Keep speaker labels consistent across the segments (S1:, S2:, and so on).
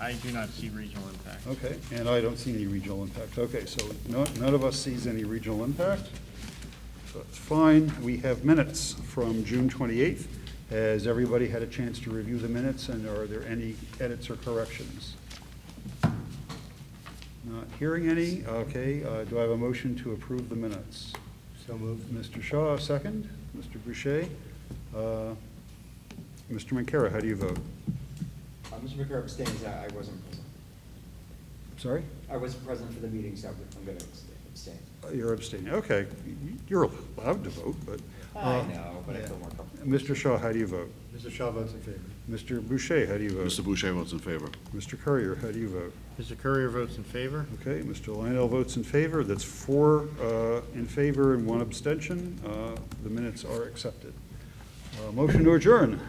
S1: I do not see regional impact.
S2: Okay, and I don't see any regional impact. Okay, so no- none of us sees any regional impact. So That's fine. We have minutes from June 28th. Has everybody had a chance to review the minutes, and are there any edits or corrections? Not hearing any. Okay, uh, do I have a motion to approve the minutes? So moved. Mr. Shaw, second. Mr. Boucher. Uh, Mr. Mancara, how do you vote?
S3: Uh, Mr. McCarver abstains, I I wasn't present.
S2: Sorry?
S3: I wasn't present for the meeting, so I'm going to abstain.
S2: You're abstaining, okay. You're allowed to vote, but.
S3: I
S2: uh,
S3: know, but I feel more comfortable.
S2: Mr. Shaw, how do you vote?
S4: Mr. Shaw votes in favor.
S2: Mr. Boucher, how do you vote?
S5: Mr. Boucher votes in favor.
S2: Mr. Courier, how do you vote?
S1: Mr. Courier votes in favor.
S2: Okay, Mr. Lionel votes in favor, that's four uh, in favor and one abstention. Uh, The minutes are accepted. Uh, Motion to adjourn,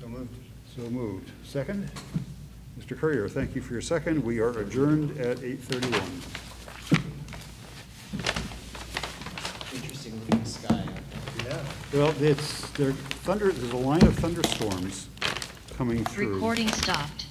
S4: So moved.
S2: so moved. Second? Mr. Courier, thank you for your second. We are adjourned at 8:31.
S3: Interesting looking sky out there.
S4: Yeah.
S2: Well, it's, there thunder, there's a line of thunderstorms coming through.
S6: Recording stopped.